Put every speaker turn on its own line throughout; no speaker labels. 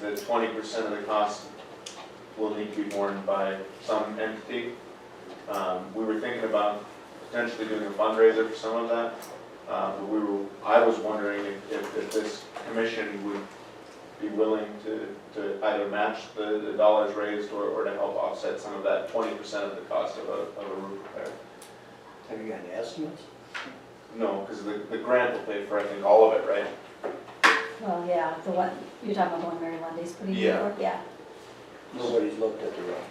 that twenty percent of the cost will need to be borne by some entity. Um, we were thinking about potentially doing a fundraiser for some of that, uh, but we were, I was wondering if, if, if this commission would be willing to, to either match the, the dollars raised or, or to help offset some of that twenty percent of the cost of a, of a roof repair.
Have you got any estimates?
No, because the, the grant will pay for, I think, all of it, right?
Well, yeah, the one, you're talking about the one Mary Lundy's putting in
Yeah.
for? Yeah.
Nobody's looked at the road.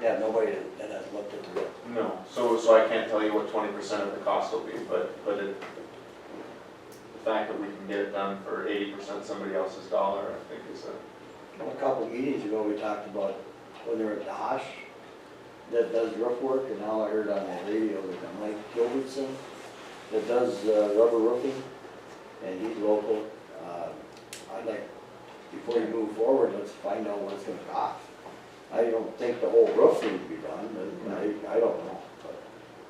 Yeah, nobody that has looked at the road.
No, so, so I can't tell you what twenty percent of the cost will be, but, but it, the fact that we can get it done for eighty percent somebody else's dollar, I think is a,
A couple of meetings ago, we talked about when they were at Dosh that does roof work, and now I heard on the radio that Mike Gilbertson that does uh, rubber roofing, and he's local. Uh, I'd like, before you move forward, let's find out what it's gonna cost. I don't think the whole roof needs to be done, but I, I don't know, but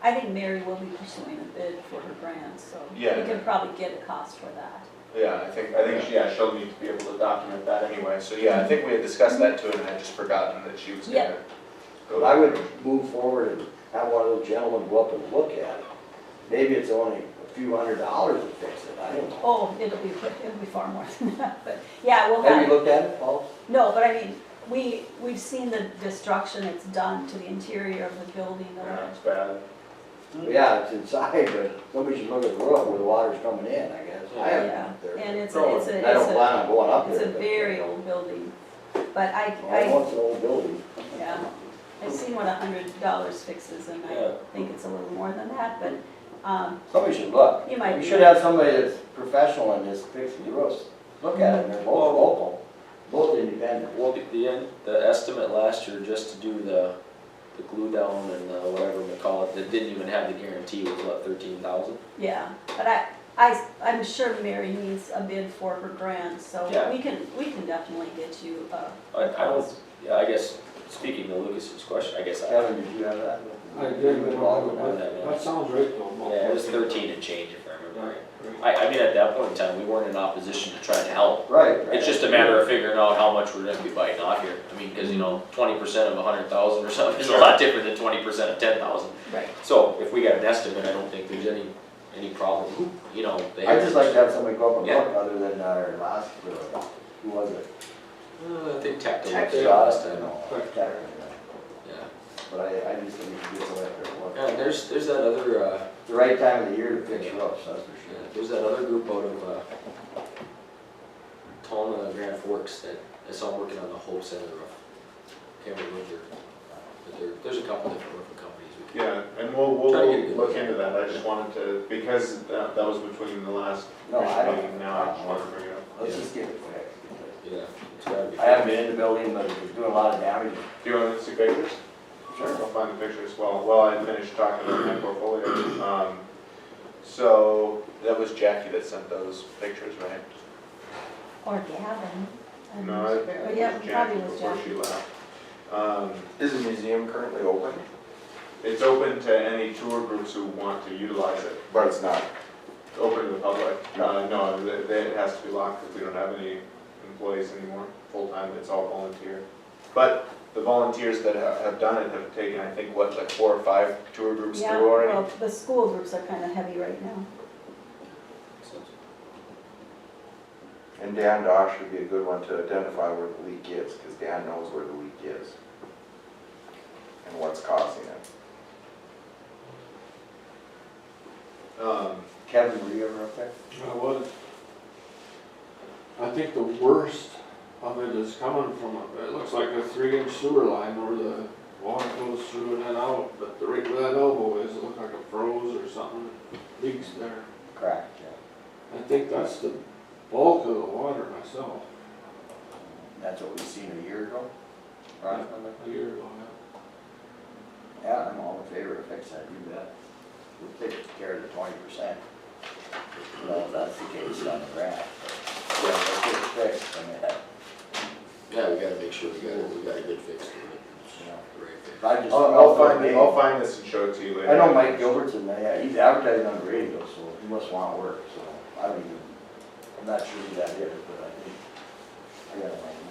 I think Mary will be pursuing a bid for her grant, so we
Yeah.
could probably get a cost for that.
yeah, I think, I think, yeah, she'll need to be able to document that anyway, so yeah,
I think we had discussed that too, and I had just forgotten that she was
Yeah.
gonna go.
I would move forward and have one of those gentlemen go up and look at it. Maybe it's only a few hundred dollars to fix it, I don't know.
Oh, it'll be, it'll be far more than that, but, yeah, we'll
Have you
have,
looked at it, Paul?
no, but I mean, we, we've seen the destruction that's done to the interior of the building, the
Yeah, it's bad.
Mm-hmm.
Yeah, it's inside, but somebody should look at the roof where the water's coming in, I guess. I haven't been
yeah,
up there.
and it's,
No,
a- it's a,
And I
it's
don't
a,
plan on going up there.
it's a
but- Oh,
very old building, but I,
Well,
I,
once an old building.
yeah. I've seen what a hundred dollars fixes, and I
Yeah.
think it's a little more than that, but, um,
Somebody should look.
You might
We
be
should
right.
have somebody that's professional in this fixing the roofs. Look at it, and they're both local, both independent.
Well, the- the, end- the estimate last year, just to do the, the glue down and the whatever we call it, that didn't even have the guarantee was what, thirteen thousand?
Yeah, but I, I, I'm sure Mary needs a bid for her grant, so
Yeah.
we can, we can definitely get you a.
I, I don't, yeah, I guess, speaking to Lucas's question, I guess I,
Kevin, did you have that?
I did, but
Involved with that?
that, that sounds right though.
yeah, it was thirteen and change if I remember
Right,
right.
right.
I, I mean, at that point in time, we weren't in opposition to trying to help.
Right. right.
It's just a matter of figuring out how much we're gonna be biting off here. I mean, cause you know, twenty percent of a hundred thousand or something is a lot different than twenty percent of ten thousand.
Right.
So if we got an estimate, I don't think there's any, any problem, Who- you know, they.
I'd just like to have somebody go up and
Yeah.
look, other than our last, uh, who was it? uh,
Uh, I think Tech did
Tex
it
shot us,
last
I
time.
know,
Right.
Tex, I
Yeah,
know. but I, I just think we should get somebody up there and look.
yeah, and there's, there's that other, uh,
The right time of the year to fix roofs, that's for
yeah,
sure.
there's that other group out of, uh, Tallinn and Grand Forks that I saw working on the whole center of, can't remember their, but there, there's a couple different roofing companies we can.
Yeah, and we'll, we'll
Try to get a good
look
look.
into that, I just wanted to, because that, that was between the last
No, I
commission
don't-
meeting, now I just wanted to bring it up.
Let's just get it fixed.
Yeah, it's gotta be.
I haven't been in the building, but it's doing a lot of damage.
Do you want to see pictures? I'll find the pictures while, while I finish talking about my portfolio. Um, So, that was Jackie that sent those pictures, right?
Or Gavin. I'm
No,
not
I
sure.
think
Oh, Yeah,
it was Jackie
probably was
before
Jeff.
she left. Um,
Is the museum currently open?
It's open to any tour groups who want to utilize it,
But it's not.
open to the public. Uh, No, th- th- it has to be locked because we don't have any employees anymore, full-time, it's all volunteer. But the volunteers that ha- have done it have taken, I think, what, like four or five tour groups
Yeah,
through already?
well, the school groups are kind of heavy right now.
And Dan Dosh would be a good one to identify where the leak is, because Dan knows where the leak is. And what's causing it.
Um,
Kevin, were you ever up there?
I was. I think the worst of it is coming from, a- it looks like a three inch sewer line where the water goes through and then out, but the right where that elbow is, it looked like it froze or something, leaks there.
Cracked, yeah.
I think that's the bulk of the water myself,
That's what we seen a year ago? Right?
a year ago, yeah.
Yeah, I'm all in favor of fixing it, you bet. We'll take care of the twenty percent. Well, if that's the case on the graph. Yeah, let's get it fixed, I mean, that-
Yeah, we gotta make sure we got, we got a good fix to it.
you know.
The right fix.
I just.
I'll, I'll find, it- I'll find this and show it to you later.
I know Mike Gilbertson, yeah, he's advertising on the radio, so he must want work, so I don't even, I'm not sure who that is, but I think, I gotta find